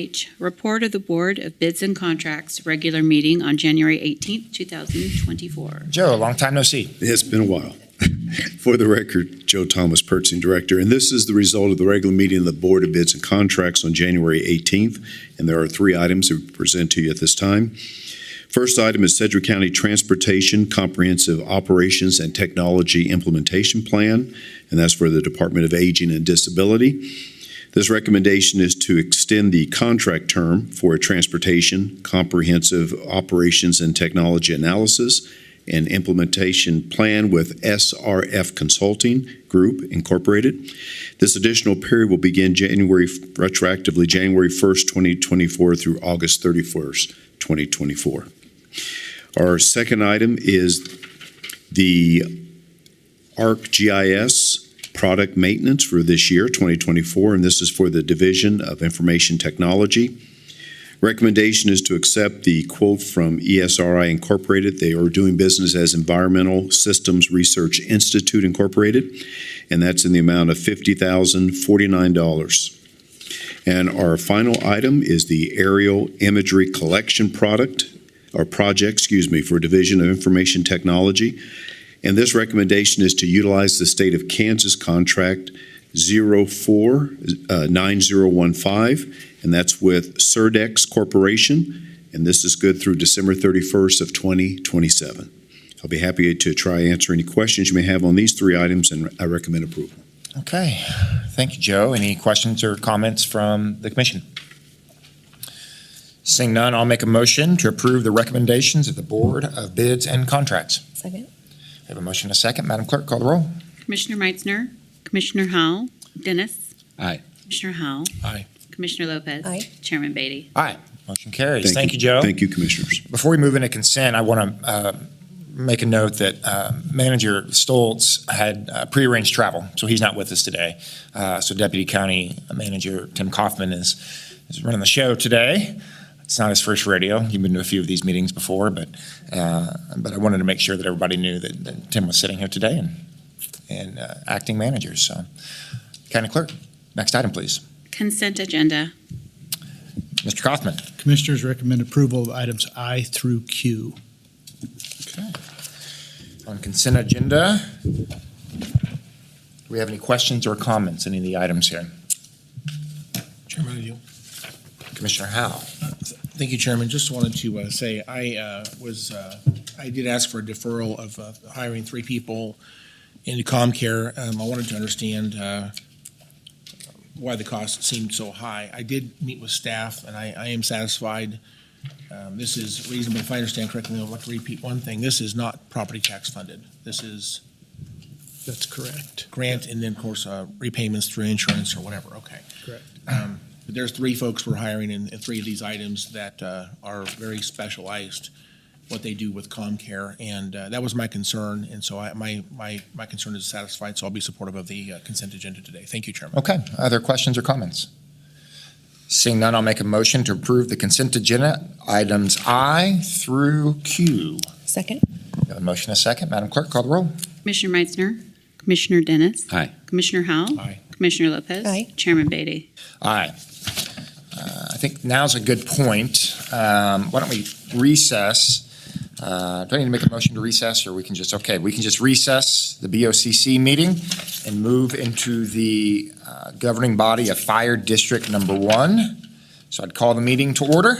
H, report of the Board of Bids and Contracts, regular meeting on January 18th, 2024. Joe, long time no see. It's been a while. For the record, Joe Thomas, purchasing director, and this is the result of the regular meeting of the Board of Bids and Contracts on January 18th, and there are three items that we present to you at this time. First item is Sedgwick County Transportation Comprehensive Operations and Technology Implementation Plan, and that's for the Department of Aging and Disability. This recommendation is to extend the contract term for a transportation comprehensive operations and technology analysis and implementation plan with SRF Consulting Group Incorporated. This additional period will begin January, retroactively January 1st, 2024 through August 31st, 2024. Our second item is the ArcGIS product maintenance for this year, 2024, and this is for the Division of Information Technology. Recommendation is to accept the quote from E ESRI Incorporated. They are doing business as Environmental Systems Research Institute Incorporated, and that's in the amount of fifty thousand forty-nine dollars. And our final item is the aerial imagery collection product, or project, excuse me, for Division of Information Technology. And this recommendation is to utilize the state of Kansas contract uh, 049015 and that's with Surdex Corporation, and this is good through December 31st of 2027. I'll be happy to try answer any questions you may have on these three items, and I recommend approval. Okay, thank you, Joe. Any questions or comments from the commission? Seeing none, I'll make a motion to approve the recommendations of the Board of Bids and Contracts. Second? We have a motion and a second. Madam Clerk, call the roll. Commissioner Meitzner, Commissioner Howell, Dennis. Aye. Commissioner Howell. Aye. Commissioner Lopez. Aye. Chairman Beatty. Motion carries. Thank you, Joe. Thank you, Commissioners. Before we move into consent, I want to make a note that uh, Manager Stoltz had uh, prearranged travel, so he's not with us today. Uh, So Deputy County Manager Tim Kaufman is is running the show today. It's not his first radio. He's been to a few of these meetings before, but, uh, but I wanted to make sure that everybody knew that that Tim was sitting here today and, and uh, acting manager, so. County Clerk, next item, please. Consent agenda. Mr. Kaufman. Commissioners recommend approval of items I through Q. on consent agenda. Do we have any questions or comments, any of the items here? Chairman Ideal. Commissioner Howe? Thank you, Chairman. Just wanted to uh, say, I uh, was, uh, I did ask for a deferral of uh, hiring three people into ComCare. Um, I wanted to understand uh, why the cost seemed so high. I did meet with staff, and I I am satisfied. Um, This is reasonable, if I understand correctly, I'd like to repeat one thing. This is not property tax funded. This is. That's correct. Grant, and then, of course, uh, repayments through insurance or whatever, okay. Correct. Um, but there's three folks we're hiring in, in three of these items that uh, are very specialized, what they do with ComCare, and uh, that was my concern, and so I, my, my, my concern is satisfied, so I'll be supportive of the uh, consent agenda today. Thank you, Chairman. Okay, other questions or comments? Seeing none, I'll make a motion to approve the consent agenda, items I through Q. Second? We have a motion and a second. Madam Clerk, call the roll. Commissioner Meitzner, Commissioner Dennis. Aye. Commissioner Howell. Aye. Commissioner Lopez. Aye. Chairman Beatty. Aye. Uh, I think now's a good point. Um, Why don't we recess? Uh, Do I need to make a motion to recess, or we can just, okay, we can just recess the BOCC meeting and move into the uh, governing body of Fire District Number One. So I'd call the meeting to order.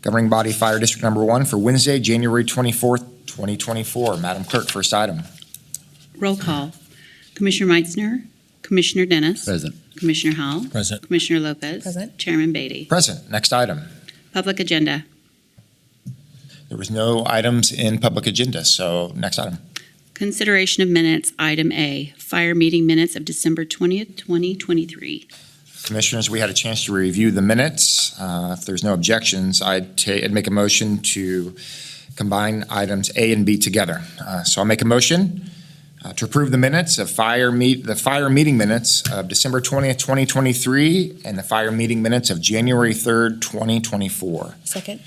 Governing body Fire District Number One for Wednesday, January 24th, 2024. Madam Clerk, first item. Roll call. Commissioner Meitzner, Commissioner Dennis. Present. Commissioner Howell. Present. Commissioner Lopez. Present. Chairman Beatty. Present, next item. Public agenda. There was no items in public agenda, so next item. Consideration of minutes, item A, fire meeting minutes of December 20th, 2023. Commissioners, we had a chance to review the minutes. Uh, If there's no objections, I'd ta- I'd make a motion to combine items A and B together. Uh, So I'll make a motion uh, to approve the minutes of fire meet, the fire meeting minutes of December 20th, 2023, and the fire meeting minutes of January 3rd, 2024. Second?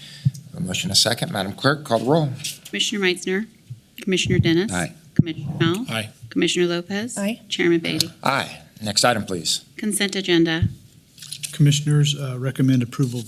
A motion, a second. Madam Clerk, call the roll. Commissioner Meitzner, Commissioner Dennis. Aye. Commissioner Howell. Aye. Commissioner Lopez. Aye. Chairman Beatty. Aye. Next item, please. Consent agenda. Commissioners uh, recommend approval of